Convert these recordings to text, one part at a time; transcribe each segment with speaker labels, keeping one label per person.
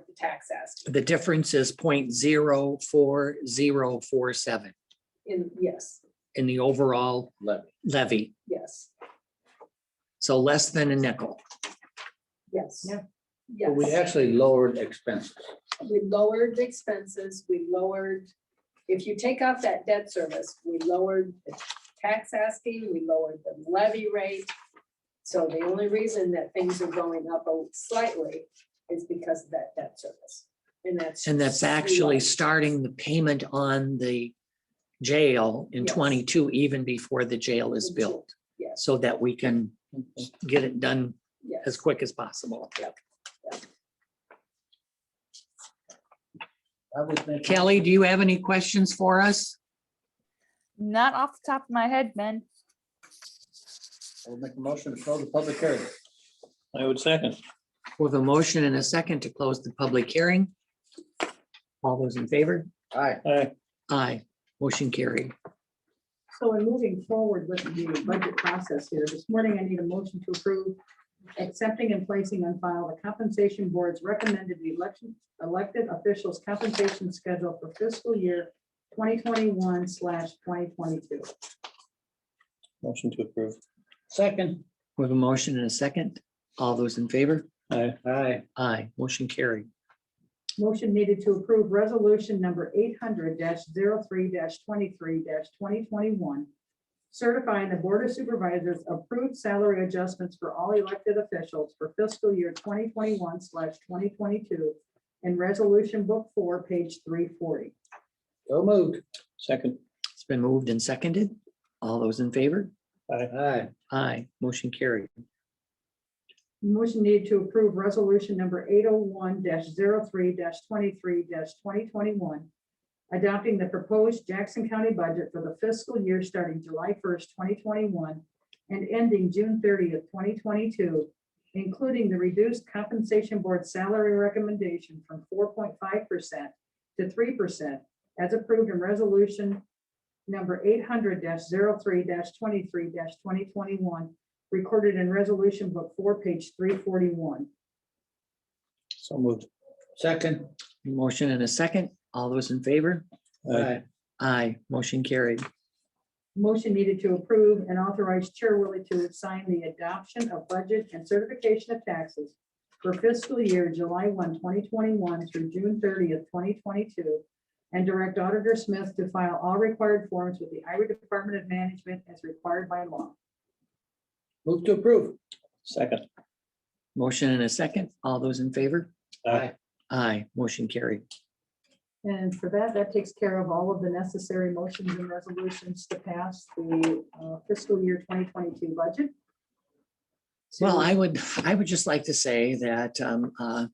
Speaker 1: the tax ask.
Speaker 2: The difference is point zero four zero four seven
Speaker 1: In, yes,
Speaker 2: in the overall
Speaker 3: levy.
Speaker 2: levy.
Speaker 1: yes,
Speaker 2: So less than a nickel.
Speaker 1: yes.
Speaker 2: Yeah.
Speaker 1: Yes.
Speaker 3: But we actually lowered expenses.
Speaker 1: We lowered the expenses, we lowered, if you take off that debt service, we lowered the tax asking, we lowered the levy rate. So the only reason that things are going up a- slightly is because of that debt service. And that's.
Speaker 2: And that's actually
Speaker 1: just-
Speaker 2: starting the payment on the jail in
Speaker 1: Yes.
Speaker 2: twenty-two, even before the jail is built,
Speaker 1: Yes,
Speaker 2: so that we can get it done as
Speaker 1: yes.
Speaker 2: quick as possible.
Speaker 3: I would think-
Speaker 2: Kelly, do you have any questions for us?
Speaker 4: Not off the top of my head, Ben.
Speaker 3: I would make a motion to close the public hearing.
Speaker 5: I would second.
Speaker 2: With a motion and a second to close the public hearing. All those in favor?
Speaker 3: Aye.
Speaker 5: Aye.
Speaker 2: Aye. Motion carried.
Speaker 6: So in moving forward with the budget process here, this morning I need a motion to approve accepting and placing on file the compensation board's recommended election, elected officials compensation schedule for fiscal year twenty twenty-one slash twenty twenty-two.
Speaker 5: Motion to approve.
Speaker 3: Second.
Speaker 2: With a motion and a second. All those in favor?
Speaker 5: Aye.
Speaker 3: Aye.
Speaker 2: Aye. Motion carried.
Speaker 6: Motion needed to approve resolution number eight hundred 3 twenty-three twenty twenty-one, certifying the Board of Supervisors approved salary adjustments for all elected officials for fiscal year twenty twenty-one slash twenty twenty-two in Resolution Book Four, page three forty.
Speaker 3: So moved.
Speaker 5: Second.
Speaker 2: It's been moved and seconded. All those in favor?
Speaker 3: Aye.
Speaker 2: Aye. Motion carried.
Speaker 6: Motion needed to approve resolution number eight oh one 3 twenty-three twenty twenty-one, adopting the proposed Jackson County budget for the fiscal year starting July first, twenty twenty-one and ending June thirtieth, twenty twenty-two, including the reduced compensation board salary recommendation from four point five percent to three percent as approved in resolution number eight hundred 3 twenty-three twenty twenty-one recorded in Resolution Book Four, page three forty-one.
Speaker 5: So moved.
Speaker 3: Second.
Speaker 2: Motion and a second. All those in favor?
Speaker 3: Aye.
Speaker 2: Aye. Motion carried.
Speaker 6: Motion needed to approve and authorize Chair Willie to sign the adoption of budget and certification of taxes for fiscal year July 1, 2021 through June thirtieth, twenty twenty-two, and direct Auditor Smith to file all required forms with the Iowa Department of Management as required by law.
Speaker 3: Move to approve.
Speaker 5: Second.
Speaker 2: Motion and a second. All those in favor?
Speaker 5: Aye.
Speaker 2: Aye. Motion carried.
Speaker 6: And for that, that takes care of all of the necessary motions and resolutions to pass the uh, fiscal year twenty twenty-two budget.
Speaker 2: Well,
Speaker 6: So-
Speaker 2: I would, I would just like to say that um, uh,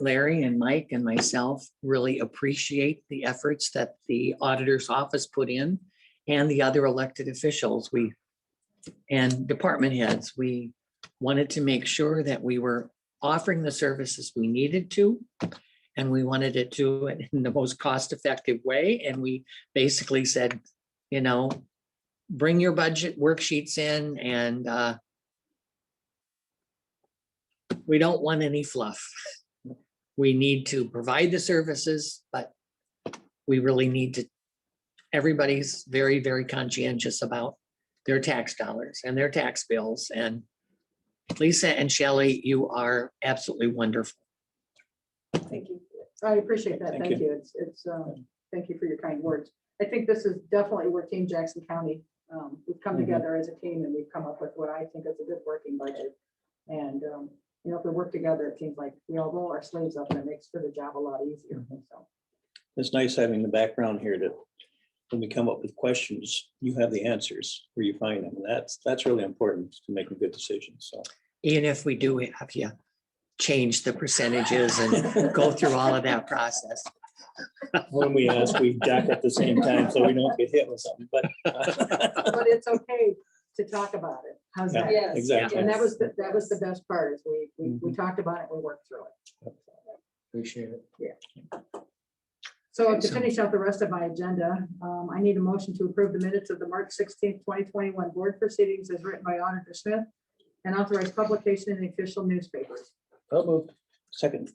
Speaker 2: Larry and Mike and myself really appreciate the efforts that the auditor's office put in and the other elected officials, we, and department heads, we wanted to make sure that we were offering the services we needed to. And we wanted it to it in the most cost-effective way, and we basically said, you know, bring your budget worksheets in and uh, we don't want any fluff. We need to provide the services, but we really need to, everybody's very, very conscientious about their tax dollars and their tax bills. And Lisa and Shelley, you are absolutely wonderful.
Speaker 6: Thank you. I appreciate that.
Speaker 5: Thank
Speaker 6: Thank you. It's, it's, um, thank you for your kind words. I think this is definitely where Team Jackson County, um, we've come
Speaker 5: Mhm.
Speaker 6: together as a team and we've come up with what I think is a good working budget. And, um, you know, if we work together, it seems like we all roll our sleeves up and it makes for the job a lot easier.
Speaker 5: Mm-hmm.
Speaker 6: So
Speaker 5: It's nice having the background here to, when we come up with questions, you have the answers where you find them. That's, that's really important to making good decisions, so.
Speaker 2: Even if we do have you change the percentages and go through all of that process.
Speaker 5: When we ask, we jack at the same time, so we don't get hit with something, uh, but.
Speaker 6: But it's okay to talk about it. How's that?
Speaker 1: Yeah. Yes,
Speaker 5: Exactly.
Speaker 6: And that was, the- that was the best part is we, we, we talked about it, we worked through it.
Speaker 3: Appreciate it.
Speaker 6: So to
Speaker 2: So-
Speaker 6: finish out the rest of my agenda, um, I need a motion to approve the minutes of the March sixteenth, twenty twenty-one board proceedings as written by Auditor Smith and authorize publication in the official newspapers.
Speaker 3: So moved.
Speaker 5: Second.